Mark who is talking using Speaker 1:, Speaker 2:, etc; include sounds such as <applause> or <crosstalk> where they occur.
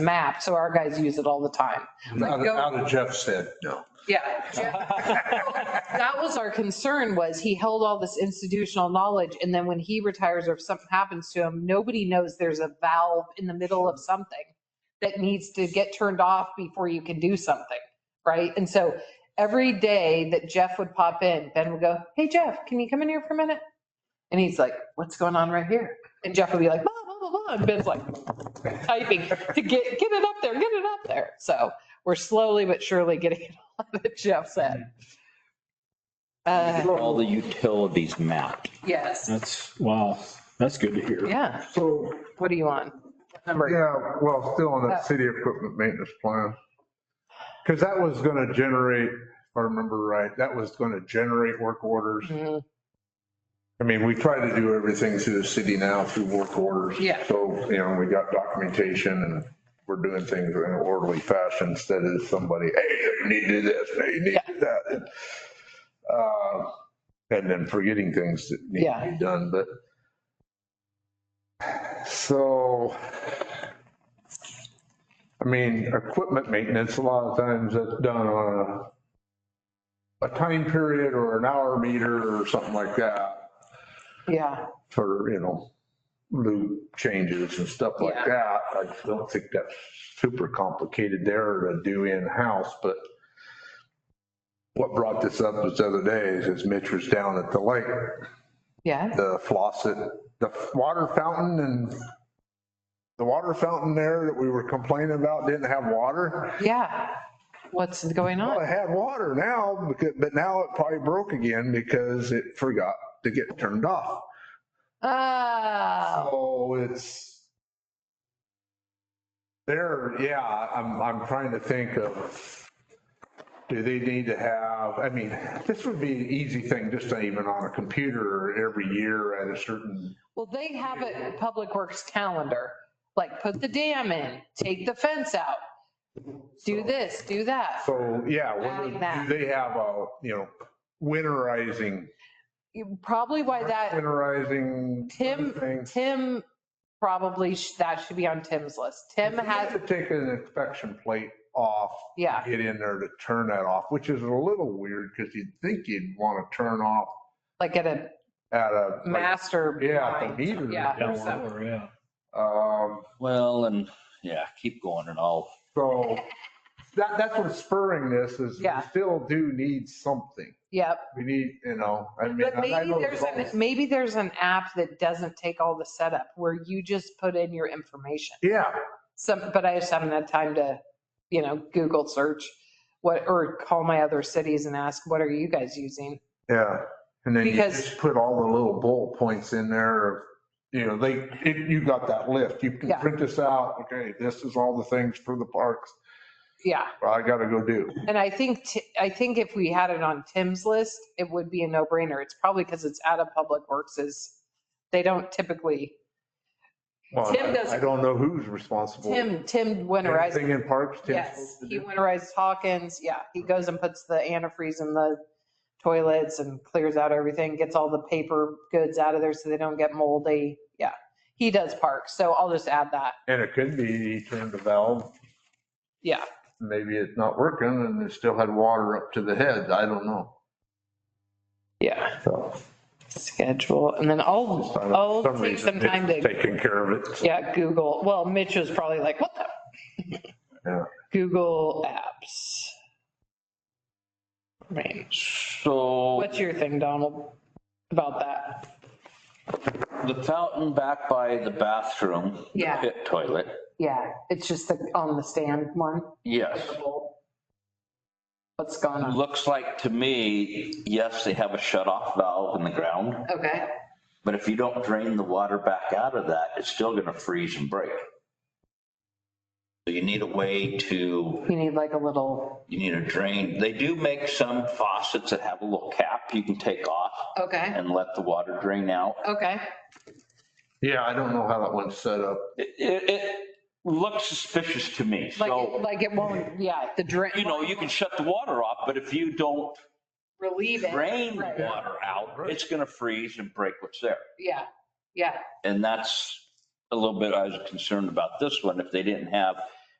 Speaker 1: map, so our guys use it all the time.
Speaker 2: Now that- now that Jeff said, no.
Speaker 1: Yeah. That was our concern was he held all this institutional knowledge and then when he retires or if something happens to him, nobody knows there's a valve in the middle of something that needs to get turned off before you can do something, right? And so every day that Jeff would pop in, Ben would go, hey Jeff, can you come in here for a minute? And he's like, what's going on right here? And Jeff would be like, blah, blah, blah, blah. And Ben's like <laughs> typing to get, get it up there, get it up there. So we're slowly but surely getting <laughs> it all that Jeff said. Uh,
Speaker 3: All the utilities mapped.
Speaker 1: yes,
Speaker 4: That's, wow, that's good to hear.
Speaker 1: yeah.
Speaker 2: So,
Speaker 1: What are you on? What Number,
Speaker 2: <laughs> yeah, well, still on that city equipment maintenance plan. Because that was going to generate, if I remember right, that was going to generate work orders.
Speaker 1: Mhm.
Speaker 2: I mean, we try to do everything through the city now through work orders.
Speaker 1: Yeah.
Speaker 2: So, you know, we got documentation and we're doing things in an orderly fashion instead of somebody, hey, you need to do this, hey, you need to do that. Uh, And then forgetting things that need to be done, but. So, I mean, equipment maintenance, a lot of times that's done on a, a time period or an hour meter or something like that
Speaker 1: yeah,
Speaker 2: for, you know, loop changes and stuff like
Speaker 1: Yeah.
Speaker 2: that. I don't think that's super complicated there to do in-house, but what brought this up this other day is Mitch was down at the lake,
Speaker 1: yeah,
Speaker 2: the faucet, the water fountain and the water fountain there that we were complaining about didn't have water.
Speaker 1: yeah. What's going
Speaker 2: Well, it
Speaker 1: on?
Speaker 2: had water now, because- but now it probably broke again because it forgot to get turned off.
Speaker 1: Oh,
Speaker 2: So it's there, yeah, I'm, I'm trying to think of, do they need to have, I mean, this would be an easy thing, just to even on a computer every year at a certain,
Speaker 1: well, they have a public works calendar, like put the dam in, take the fence out, do this, do that.
Speaker 2: so, yeah,
Speaker 1: Adding
Speaker 2: whether-
Speaker 1: that.
Speaker 2: do they have a, you know, winterizing,
Speaker 1: You- Probably why that,
Speaker 2: winterizing
Speaker 1: Tim,
Speaker 2: things?
Speaker 1: Tim, probably sh- that should be on Tim's list. Tim
Speaker 2: You have
Speaker 1: has,
Speaker 2: to take an inspection plate off
Speaker 1: yeah.
Speaker 2: get in there to turn that off, which is a little weird because you'd think you'd want to turn off
Speaker 1: like at a
Speaker 2: at a. like,
Speaker 1: master.
Speaker 2: Yeah, at the
Speaker 1: mind.
Speaker 2: meter.
Speaker 1: Yeah.
Speaker 4: Yeah, well, yeah.
Speaker 2: Um,
Speaker 3: Well, and yeah, keep going and I'll,
Speaker 1: <laughs>
Speaker 2: so that, that's what's spurring this is we
Speaker 1: Yeah.
Speaker 2: still do need something.
Speaker 1: Yep.
Speaker 2: We need, you know, I mean.
Speaker 1: But
Speaker 2: and I
Speaker 1: maybe
Speaker 2: know
Speaker 1: there's,
Speaker 2: it's
Speaker 1: an-
Speaker 2: all-
Speaker 1: maybe there's an app that doesn't take all the setup where you just put in your information.
Speaker 2: Yeah,
Speaker 1: Some, but I just haven't had time to, you know, Google search what, or call my other cities and ask, what are you guys using?
Speaker 2: yeah. And then you
Speaker 1: Because-
Speaker 2: just put all the little bullet points in there. of, You know, they, it- you got that list. You can
Speaker 1: Yeah.
Speaker 2: print this out. Okay, this is all the things for the parks
Speaker 1: Yeah.
Speaker 2: I gotta go do.
Speaker 1: And I think, Ti- I think if we had it on Tim's list, it would be a no brainer. It's probably because it's out of Public Works is, they don't typically,
Speaker 2: Well,
Speaker 1: Tim
Speaker 2: I-
Speaker 1: doesn't-
Speaker 2: I don't know who's responsible.
Speaker 1: Tim, Tim winterizes
Speaker 2: Anything in parks, Tim?
Speaker 1: Yes, he winterizes Hawkins. Yeah, he goes and puts the antifreeze in the toilets and clears out everything, gets all the paper goods out of there so they don't get moldy. Yeah, he does parks. So I'll just add that.
Speaker 2: And it could be he turned the valve,
Speaker 1: Yeah,
Speaker 2: maybe it's not working and it still had water up to the head. I don't know.
Speaker 1: yeah,
Speaker 2: So
Speaker 1: schedule. And then I'll,
Speaker 2: I don't-
Speaker 1: I'll
Speaker 2: for some
Speaker 1: Oh, take some
Speaker 2: reason,
Speaker 1: time
Speaker 2: it's
Speaker 1: to,
Speaker 2: Taking care of it.
Speaker 1: yeah, Google. Well, Mitch was probably like, what the?
Speaker 2: Yeah.
Speaker 1: Google apps. Range.
Speaker 3: so
Speaker 1: What's your thing, Donald, about that?
Speaker 3: the fountain back by the bathroom. the
Speaker 1: Yeah.
Speaker 3: Pit toilet,
Speaker 1: Yeah, it's just the, on the stand one.
Speaker 3: yes.
Speaker 1: What's going on?
Speaker 3: Looks like to me, yes, they have a shut off valve in the ground,
Speaker 1: Okay,
Speaker 3: but if you don't drain the water back out of that, it's still going to freeze and break. So you need a way to
Speaker 1: you need like a little,
Speaker 3: you need a drain. They do make some faucets that have a little cap you can take off
Speaker 1: okay,
Speaker 3: and let the water drain out.
Speaker 1: okay.
Speaker 2: Yeah, I don't know how that one's set up.
Speaker 3: It, it it looks suspicious to me.
Speaker 1: Like, it-
Speaker 3: So,
Speaker 1: like it won't, yeah, the drain.
Speaker 3: you know, you can shut the water off, but if you don't
Speaker 1: Relieve it.
Speaker 3: drain the
Speaker 1: Right.
Speaker 3: water out, it's going to freeze and break what's there.
Speaker 1: Yeah, yeah,
Speaker 3: And that's a little bit, I was concerned about this one. If they didn't have